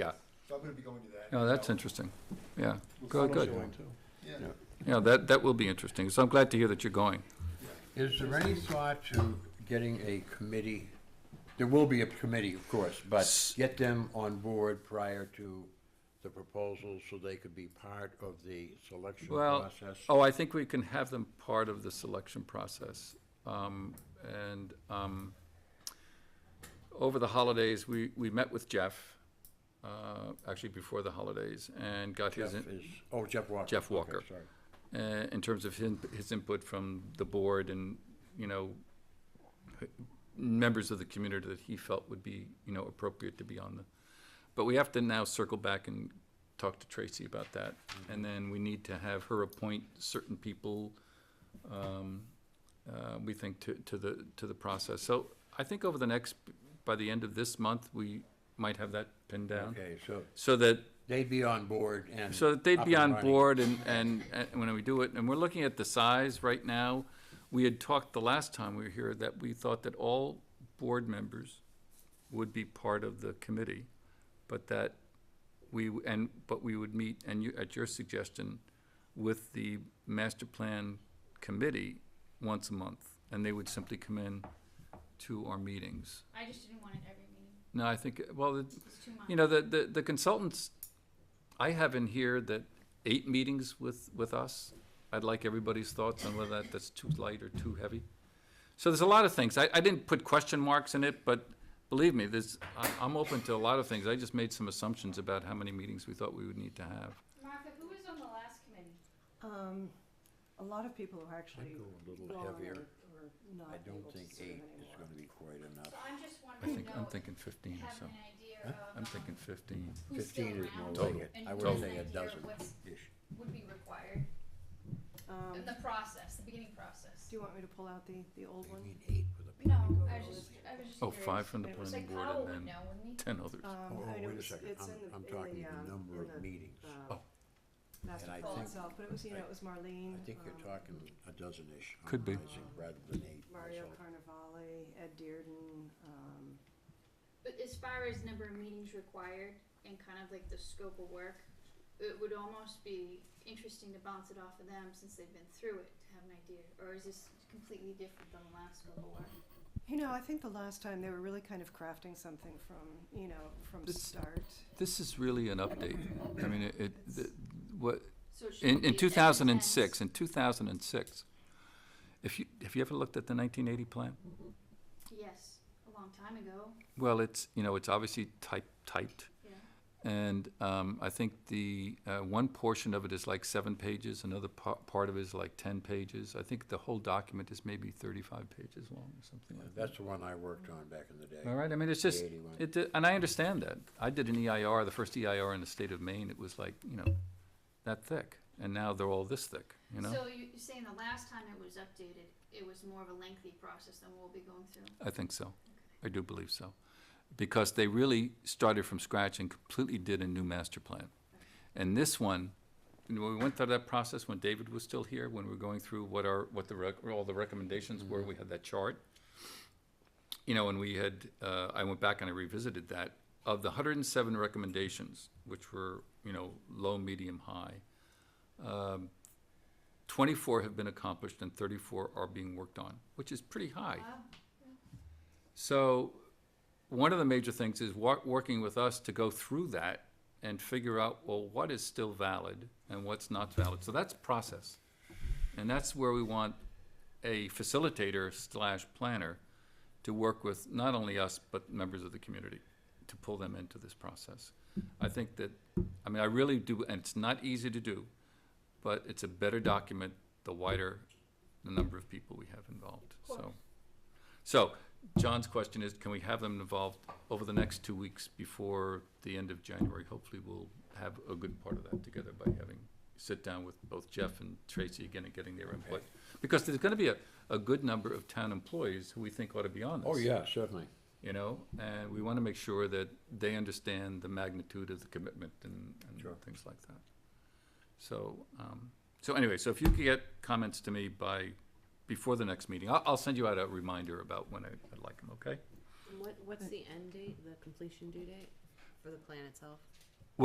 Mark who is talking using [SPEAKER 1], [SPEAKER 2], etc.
[SPEAKER 1] gonna be going to that.
[SPEAKER 2] Oh, that's interesting. Yeah, good, good.
[SPEAKER 1] Yeah.
[SPEAKER 3] Yeah.
[SPEAKER 2] Yeah, that, that will be interesting. So I'm glad to hear that you're going.
[SPEAKER 3] Is there any thought to getting a committee? There will be a committee, of course, but get them on board prior to the proposal so they could be part of the selection
[SPEAKER 2] Well,
[SPEAKER 3] process.
[SPEAKER 2] oh, I think we can have them part of the selection process. Um, and, um, over the holidays, we, we met with Jeff, uh, actually before the holidays, and got
[SPEAKER 3] Jeff
[SPEAKER 2] his,
[SPEAKER 3] is,
[SPEAKER 2] in-
[SPEAKER 3] oh, Jeff Walker.
[SPEAKER 2] Jeff
[SPEAKER 3] Okay,
[SPEAKER 2] Walker.
[SPEAKER 3] sorry.
[SPEAKER 2] uh, in terms of his, his input from the board and, you know, members of the community that he felt would be, you know, appropriate to be on the. But we have to now circle back and talk to Tracy about that. And then we need to have her appoint certain people, um, uh, we think to, to the, to the process. So I think over the next, by the end of this month, we might have that pinned down.
[SPEAKER 3] Okay, so
[SPEAKER 2] So that
[SPEAKER 3] they'd be on board and.
[SPEAKER 2] so that they'd
[SPEAKER 3] up
[SPEAKER 2] be
[SPEAKER 3] and
[SPEAKER 2] on
[SPEAKER 3] running.
[SPEAKER 2] board and, and, and when we do it, and we're looking at the size right now. We had talked the last time we were here that we thought that all board members would be part of the committee, but that we, w- and, but we would meet, and you, at your suggestion, with the master plan committee once a month, and they would simply come in to our meetings.
[SPEAKER 4] I just didn't want it every meeting.
[SPEAKER 2] No, I think, well, it-
[SPEAKER 4] It was too much.
[SPEAKER 2] you know, the, the, the consultants, I have in here that eight meetings with, with us. I'd like everybody's thoughts on whether that, that's too light or too heavy. So there's a lot of things. I, I didn't put question marks in it, but believe me, there's, I, I'm open to a lot of things. I just made some assumptions about how many meetings we thought we would need to have.
[SPEAKER 4] Martha, who was on the last committee?
[SPEAKER 5] Um, a lot of people are actually
[SPEAKER 3] I'd go a little
[SPEAKER 5] gone or
[SPEAKER 3] heavier.
[SPEAKER 5] or not
[SPEAKER 3] I
[SPEAKER 5] able
[SPEAKER 3] don't
[SPEAKER 5] to
[SPEAKER 3] think
[SPEAKER 5] serve
[SPEAKER 3] eight is
[SPEAKER 5] anymore.
[SPEAKER 3] gonna be quite
[SPEAKER 4] So
[SPEAKER 3] enough.
[SPEAKER 4] I'm just
[SPEAKER 2] I
[SPEAKER 4] wanting
[SPEAKER 2] think,
[SPEAKER 4] to
[SPEAKER 2] I'm
[SPEAKER 4] know,
[SPEAKER 2] thinking fifteen or
[SPEAKER 4] have
[SPEAKER 2] so.
[SPEAKER 4] an idea of.
[SPEAKER 2] I'm
[SPEAKER 4] um,
[SPEAKER 2] thinking fifteen.
[SPEAKER 4] who's still
[SPEAKER 3] Fifteen is
[SPEAKER 4] around
[SPEAKER 3] more like it.
[SPEAKER 4] and
[SPEAKER 3] I
[SPEAKER 4] just
[SPEAKER 3] would
[SPEAKER 4] an
[SPEAKER 3] say a
[SPEAKER 4] idea of
[SPEAKER 3] dozen.
[SPEAKER 4] what's-
[SPEAKER 3] Ish.
[SPEAKER 4] Would be required
[SPEAKER 5] Um,
[SPEAKER 4] in the process, the beginning process.
[SPEAKER 5] do you want me to pull out the, the old
[SPEAKER 3] They
[SPEAKER 5] one?
[SPEAKER 3] mean eight with a.
[SPEAKER 4] No, I was just, I was just
[SPEAKER 2] Oh,
[SPEAKER 4] curious.
[SPEAKER 2] five from the
[SPEAKER 5] It was
[SPEAKER 2] planning
[SPEAKER 4] Like
[SPEAKER 2] board
[SPEAKER 4] Powell would
[SPEAKER 2] and then
[SPEAKER 4] know, wouldn't he?
[SPEAKER 2] ten others.
[SPEAKER 5] Um,
[SPEAKER 3] Oh,
[SPEAKER 5] I
[SPEAKER 3] oh,
[SPEAKER 5] know
[SPEAKER 3] wait a
[SPEAKER 5] it's-
[SPEAKER 3] second,
[SPEAKER 5] it's
[SPEAKER 3] I'm,
[SPEAKER 5] in the-
[SPEAKER 3] I'm
[SPEAKER 5] in
[SPEAKER 3] talking
[SPEAKER 5] um,
[SPEAKER 3] the number
[SPEAKER 5] in the,
[SPEAKER 3] of meetings.
[SPEAKER 5] uh,
[SPEAKER 2] Oh.
[SPEAKER 3] And
[SPEAKER 5] Master
[SPEAKER 3] I
[SPEAKER 5] plan
[SPEAKER 4] think-
[SPEAKER 5] itself, but it was, you know,
[SPEAKER 3] I-
[SPEAKER 5] it was Marlene,
[SPEAKER 3] I think you're
[SPEAKER 5] um,
[SPEAKER 3] talking a dozen-ish. I'm
[SPEAKER 2] Could be.
[SPEAKER 3] rising Rather than eight.
[SPEAKER 5] Mario
[SPEAKER 3] myself.
[SPEAKER 5] Carnavale, Ed Dearden, um,
[SPEAKER 4] But as far as number of meetings required and kind of like the scope of work, it would almost be interesting to bounce it off of them since they've been through it to have an idea. Or is this completely different than the last scope of work?
[SPEAKER 5] you know, I think the last time they were really kind of crafting something from, you know, from
[SPEAKER 2] This-
[SPEAKER 5] start.
[SPEAKER 2] This is really an update. I mean, it- it, the- what,
[SPEAKER 4] So it
[SPEAKER 2] In,
[SPEAKER 4] shouldn't
[SPEAKER 2] in
[SPEAKER 4] be
[SPEAKER 2] two thousand and six,
[SPEAKER 4] intense.
[SPEAKER 2] in two thousand and six, if you, have you ever looked at the nineteen eighty plan?
[SPEAKER 4] Yes, a long time ago,
[SPEAKER 2] Well, it's, you know, it's obviously type, typed,
[SPEAKER 4] yeah.
[SPEAKER 2] and, um, I think the, uh, one portion of it is like seven pages, another par- part of it is like ten pages. I think the whole document is maybe thirty-five pages long or something like that.
[SPEAKER 3] That's the one I worked on back in the day.
[SPEAKER 2] All right, I mean, it's just,
[SPEAKER 3] The 81.
[SPEAKER 2] it, di- and I understand that. I did an EIR, the first EIR in the state of Maine, it was like, you know, that thick, and now they're all this thick, you know?
[SPEAKER 4] So you- you're saying the last time it was updated, it was more of a lengthy process than we'll be going through?
[SPEAKER 2] I think so. I do believe so. Because they really started from scratch and completely did a new master plan. And this one, you know, we went through that process when David was still here, when we were going through what our, what the, rec- all the recommendations were, we had that chart. You know, and we had, uh, I went back and I revisited that. Of the hundred and seven recommendations, which were, you know, low, medium, high, um, twenty-four have been accomplished and thirty-four are being worked on, which is pretty high.
[SPEAKER 4] Wow.
[SPEAKER 2] So, one of the major things is wa- working with us to go through that and figure out, well, what is still valid and what's not valid. So that's process. And that's where we want a facilitator slash planner to work with not only us, but members of the community, to pull them into this process. I think that, I mean, I really do, and it's not easy to do, but it's a better document the wider the number of people we have involved,
[SPEAKER 4] Of
[SPEAKER 2] so.
[SPEAKER 4] course.
[SPEAKER 2] So, John's question is, can we have them involved over the next two weeks before the end of January? Hopefully, we'll have a good part of that together by having, sit down with both Jeff and Tracy again and getting their input. Because there's gonna be a, a good number of town employees who we think ought to be on this.
[SPEAKER 3] Oh, yeah, certainly.
[SPEAKER 2] You know, and we wanna make sure that they understand the magnitude of the commitment and,
[SPEAKER 3] Sure.
[SPEAKER 2] and things like that. So, um, so anyway, so if you could get comments to me by, before the next meeting, I'll, I'll send you out a reminder about when I- I'd like them, okay?
[SPEAKER 6] And What, what's the end date, the completion due date for the plan itself?